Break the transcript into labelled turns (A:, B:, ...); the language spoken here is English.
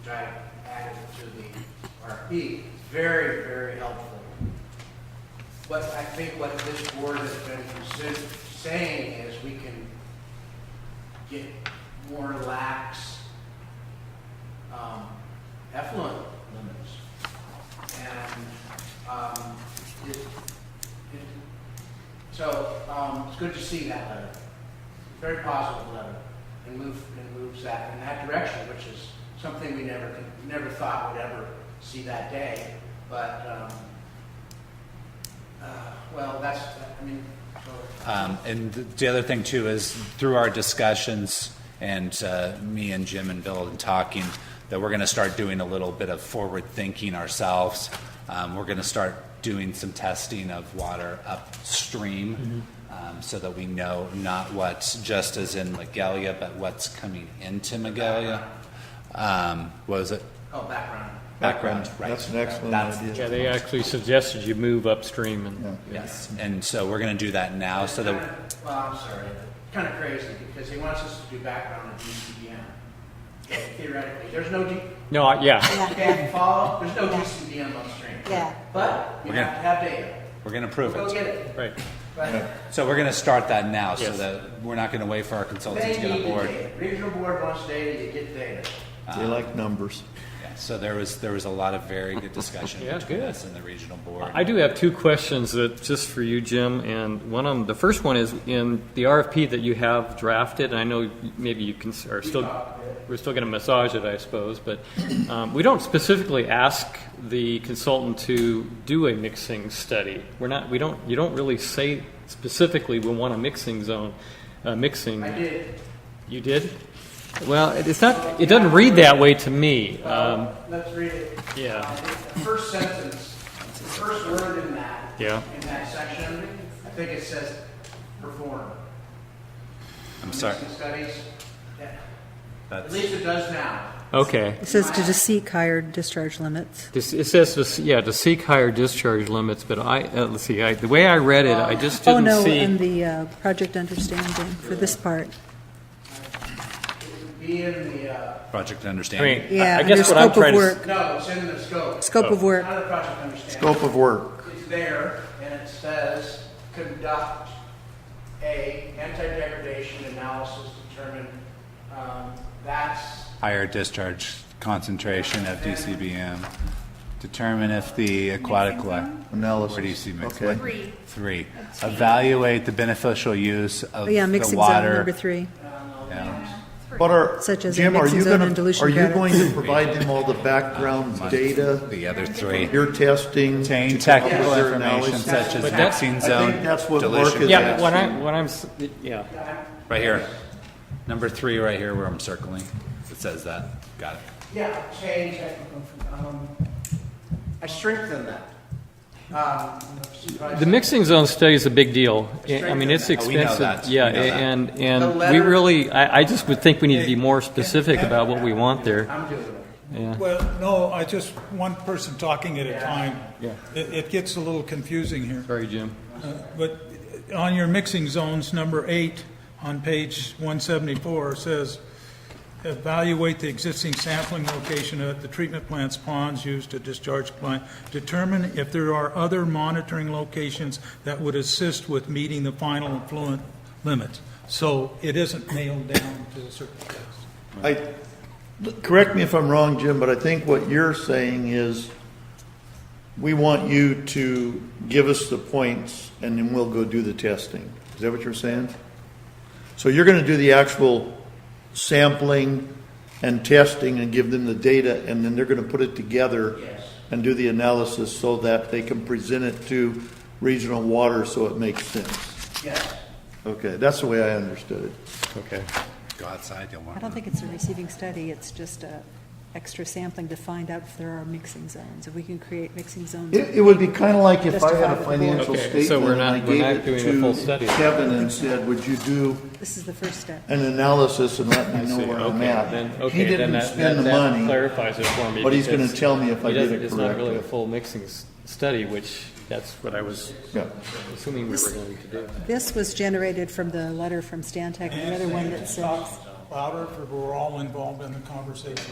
A: which I added to the RFP, very, very helpful. But I think what this board has been consider- saying is we can get more lax um, effluent limits. And um, it, it, so um, it's good to see that letter. Very positive letter and move, and moves that in that direction, which is something we never, con- never thought would ever see that day. But, um, uh, well, that's, I mean, so,
B: Um, And the other thing too is through our discussions and uh, me and Jim and Bill and talking, that we're going to start doing a little bit of forward thinking ourselves. Um, We're going to start doing some testing of water upstream um, so that we know not what's just as in Magalia, but what's coming into Magalia. Um, What was it?
A: oh, background.
B: Background, right.
C: That's an excellent
B: That's-
C: idea.
D: Yeah, they actually suggested you move upstream and,
B: Yes. And so we're going to do that now so
A: It's
B: that,
A: kinda- Well, I'm sorry, kind of crazy, because he wants us to do background on DCBM. Theoretically, there's no, D-
D: no, I- yeah,
E: Yeah,
A: okay, follow, there's no DCBM upstream.
E: Yeah.
A: But we
B: We're gonna-
A: have to have data.
B: we're going to prove it.
A: Go get it.
D: right.
A: But
B: So we're going to start that now, so
D: Yes.
B: that we're not going to wait for our consultants
A: They
B: to get on
A: need the
B: board.
A: data. Regional board wants data, you get data.
C: They
B: Uh,
C: like numbers.
B: Yeah, So there was, there was a lot of very good discussion
D: Yeah,
B: between
D: good.
B: us and the regional board.
D: I do have two questions that, just for you, Jim, and one of them, the first one is in the RFP that you have drafted, and I know maybe you can, are still, we're still going to massage it, I suppose, but um, we don't specifically ask the consultant to do a mixing study. We're not, we don't, you don't really say specifically we want a mixing zone, a mixing.
A: I did.
D: You did? Well, it- it's not, it doesn't read that way to me. Um,
A: Let's read it.
D: yeah.
A: Uh, The first sentence, the first word in that.
D: Yeah.
A: In that section, I think it says perform.
B: I'm sorry,
A: Mixing Studies. Yeah. At
B: that's,
A: least it does now.
D: Okay.
E: It says to seek higher discharge limits.
D: This- It says, to s- yeah, to seek higher discharge limits, but I, uh, let's see, I, the way I read it, I just
E: Oh,
D: didn't
E: no, and
D: see.
E: the uh, project understanding for this part.
A: It would Be in the, uh,
B: project
D: I mean,
B: understanding.
E: Yeah,
D: I- I
E: under
D: guess what I'm
E: scope of
D: trying to, s-
E: work,
A: no, it's in the scope.
E: scope
B: Oh.
E: of work.
A: Not the project understanding.
C: Scope of work.
A: It's there, and it says, conduct a anti-degradation analysis, determine, um, that's
B: Higher discharge concentration of DCBM. Determine if the aquatic life.
C: Analysis.
B: Where do you see mixed?
C: Okay.
F: Three.
B: Three. Evaluate the beneficial use of
E: Oh, yeah,
B: the
E: mixing zone number
B: water.
E: three.
B: Yeah.
C: But are,
E: Such as
C: Jim, are
E: mixing
C: you
E: zone
C: going to,
E: and dilution
C: are you
E: products.
C: going to provide them all the background data,
B: The other three.
C: your testing?
B: Obtain
C: to come up
B: technical
C: with their
B: information
C: analysis?
B: such as
D: But that-
B: mixing
D: I
B: zone.
C: think that's what
B: dilution
C: Mark is
B: factor.
D: yeah, but what I, what I'm, s- yeah.
B: Right here. Number three, right here, where I'm circling. It says that. Got it.
A: Yeah, change, I, um, I strengthen that. Um,
D: The mixing zone study is a big deal. I I mean, it's
B: Oh, we know
D: expensive.
B: that.
D: Yeah,
B: We know that.
D: and,
A: The
D: and we
A: letter-
D: really, I, I just would think we need to be more specific about what we want there.
A: I'm doing it.
G: Well, no, I just, one person talking at a time. Yeah. It, it gets a little confusing here.
D: Sorry, Jim.
G: But on your mixing zones, number eight on page 174 says, evaluate the existing sampling location at the treatment plant's ponds used to discharge plant. Determine if there are other monitoring locations that would assist with meeting the final effluent limits. So it isn't nailed down to a certain place.
C: I, correct me if I'm wrong, Jim, but I think what you're saying is we want you to give us the points and then we'll go do the testing. Is that what you're saying? So you're going to do the actual sampling and testing and give them the data and then they're going to put it together and do the analysis so that they can present it to regional water so it makes sense.
A: Yes,
C: Okay, that's the way I understood it.
D: Okay.
B: Go outside, you'll
E: I
B: want.
E: don't think it's a receiving study, it's just a extra sampling to find out if there are mixing zones, if we can create mixing zones.
C: It, it would be kind of like if I
E: Justify
C: had
E: the
C: a
E: board.
C: financial
D: Okay, so
C: statement
D: we're
C: and I
D: not- we're not
C: gave it
D: doing a full
C: to
D: study.
C: Kevin and said, would you do
E: This is the first step.
C: an analysis and let me know where I'm
D: Then,
C: at? He
D: okay, then
C: didn't
D: that,
C: spend
D: that
C: the
D: that
C: money,
D: clarifies it for me.
C: but he's going
D: because-
C: to tell me if I
D: It
C: did
D: doesn't,
C: it
D: it's not really a
C: correctly.
D: full mixing s- study, which that's what I was
C: Yeah.
D: assuming we were going to do.
E: This was generated from the letter from Stantec, and the other one that says.
G: Louder, for we're all involved in the conversation.